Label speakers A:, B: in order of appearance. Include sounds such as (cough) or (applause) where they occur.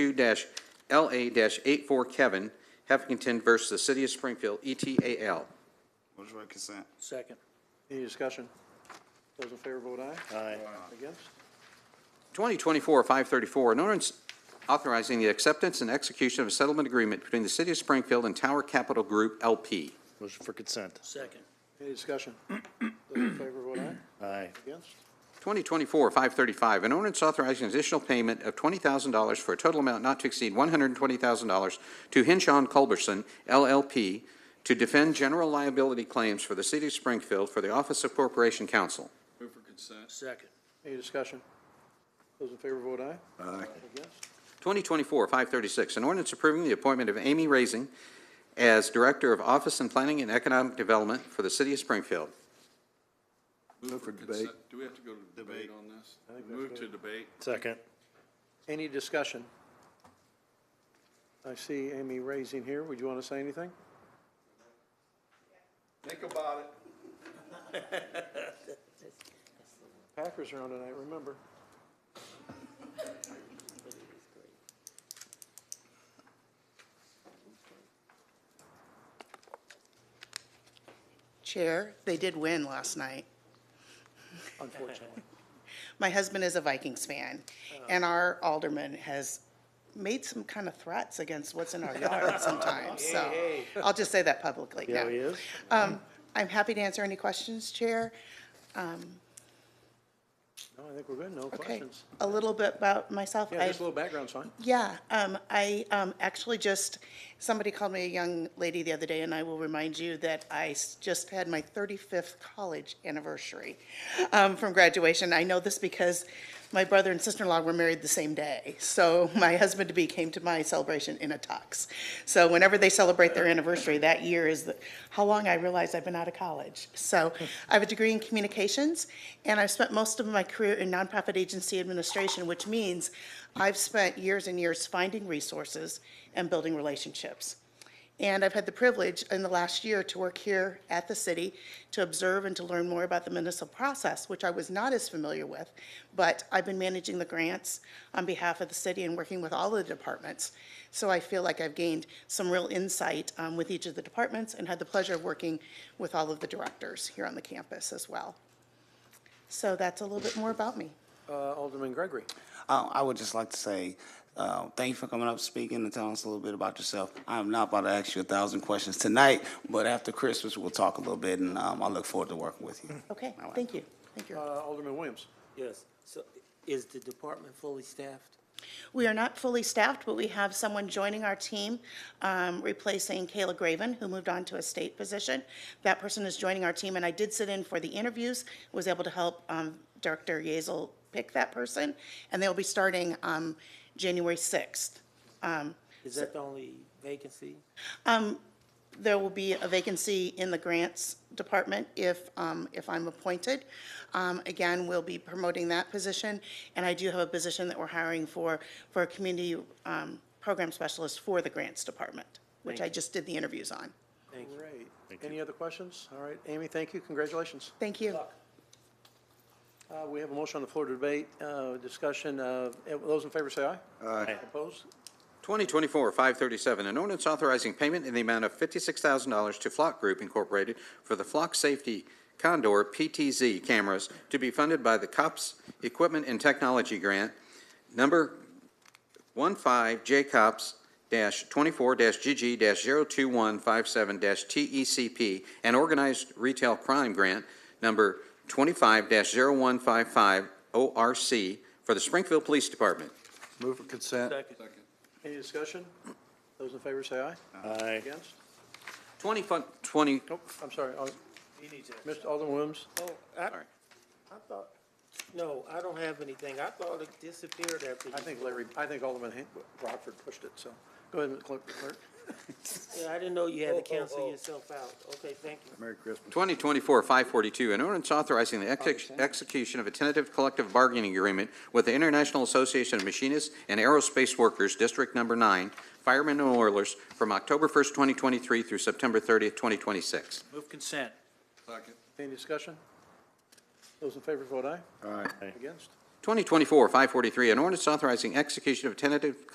A: 2-LA-84 Kevin, Heffington versus the City of Springfield, E ETAL.
B: Motion by consent.
C: Second.
D: Any discussion? Those in favor vote aye.
C: Aye.
B: Uh,
D: Against?
A: 2024-534, an ordinance authorizing the acceptance and execution of a settlement agreement between the City of Springfield and Tower Capital Group LP.
C: Motion for consent.
D: Second. Any discussion? Those in favor vote aye.
C: Aye.
D: Against?
A: 2024-535, an ordinance authorizing additional payment of $20,000 for a total amount not to exceed $120,000 to Henshaw and Culberson LLP to defend general liability claims for the City of Springfield for the Office of Corporation Counsel.
C: Second.
D: Any discussion? Those in favor vote aye.
B: Aye.
D: Against?
A: 2024-536, an ordinance approving the appointment of Amy Raising as Director of Office and Planning and Economic Development for the City of Springfield.
E: Move for debate. Do we have to go to
B: Debate.
E: debate on this? Move to debate.
C: Second.
D: Any discussion? I see Amy raising here. Would you want to say anything?
E: Think about it.
D: (laughs) Packers are on tonight, remember.
F: Chair, they did win last night.
D: Unfortunately.
F: (laughs)
D: Oh.
F: My husband is a Vikings fan, and our alderman has made some kind of threats against what's in our
D: (laughs)
F: yard sometimes, so I'll just say that publicly now.
C: Yeah, he is.
F: Um, I'm happy to answer any questions, Chair.
D: No, I think we're good. No
F: Okay,
D: questions.
F: a little bit about myself.
D: Yeah,
F: I've-
D: just a little background's fine.
F: Yeah, um, I, um, actually just, somebody called me a young lady the other day, and I will remind you that I s- just had my thirty-fifth college anniversary, um, from graduation. I know this because my brother and sister-in-law were married the same day, so (laughs) my husband-to-be came to my celebration in a tux. So whenever they celebrate their anniversary, that year is the, how long I realized I've been out of college. So I have a degree in communications, and I've spent most of my career in nonprofit agency administration, which means I've spent years and years finding resources and building relationships. And I've had the privilege in the last year to work here at the city to observe and to learn more about the municipal process, which I was not as familiar with. But I've been managing the grants on behalf of the city and working with all of the departments. So I feel like I've gained some real insight um, with each of the departments and had the pleasure of working with all of the directors here on the campus as well. So that's a little bit more about me.
D: Uh, Alderman Gregory.
B: Uh, I would just like to say, uh, thank you for coming up, speaking, and telling us a little bit about yourself. I'm not about to ask you a thousand questions tonight, but after Christmas, we'll talk a little bit, and um, I look forward to working with you.
F: Okay,
B: All right.
F: thank you. Thank you.
D: Uh, Alderman Williams.
G: Yes, so is the department fully staffed?
F: We are not fully staffed, but we have someone joining our team, um, replacing Kayla Graven, who moved on to a state position. That person is joining our team, and I did sit in for the interviews, was able to help um, Director Yezel pick that person, and they'll be starting um, January 6th.
G: Is that the only vacancy?
F: There will be a vacancy in the grants department if, um, if I'm appointed. Um, again, we'll be promoting that position, and I do have a position that we're hiring for, for a community, um, program specialist for the grants department, which I just did the interviews on.
D: Great. Any other questions? All right, Amy, thank you. Congratulations.
F: Thank you.
D: Uh, We have a motion on the floor to debate, uh, discussion. uh, Those in favor say aye. Aye. Opposed?
A: 2024-537, an ordinance authorizing payment in the amount of $56,000 to Flock Group Incorporated for the Flock Safety Condor PTZ cameras to be funded by the COPS Equipment and Technology Grant, number 15JCOPS-24-GG-02157-TECP, E and Organized Retail Crime Grant, number 25-0155-ORC, for the Springfield Police Department.
E: Move for consent.
D: Any discussion? Those in favor say aye.
C: Aye.
D: Against?
A: 20 20
D: Nope, I'm sorry. Al- Mr. Alderman Williams,
G: Oh, I,
A: Sorry.
G: I thought, no, I don't have anything. I thought it disappeared after you.
D: I think Larry, I think Alderman Han- Rockford pushed it, so go ahead, Mr. Clerk. Clerk.
G: Yeah, I didn't know
D: Oh,
G: you had to cancel yourself out. Okay, thank you.
E: Merry Christmas.
A: 2024-542, an ordinance authorizing the ex- execution of a tentative collective bargaining agreement with the International Association of Machinists and Aerospace Workers, District Number 9, Firemen and Oilers, from October 1st, 2023 through September 30th, 2026.
C: Move consent.
E: Second.
D: Any discussion? Those in favor vote aye.
E: Aye.
D: Against?
A: 2024-543, an ordinance authorizing execution of a tentative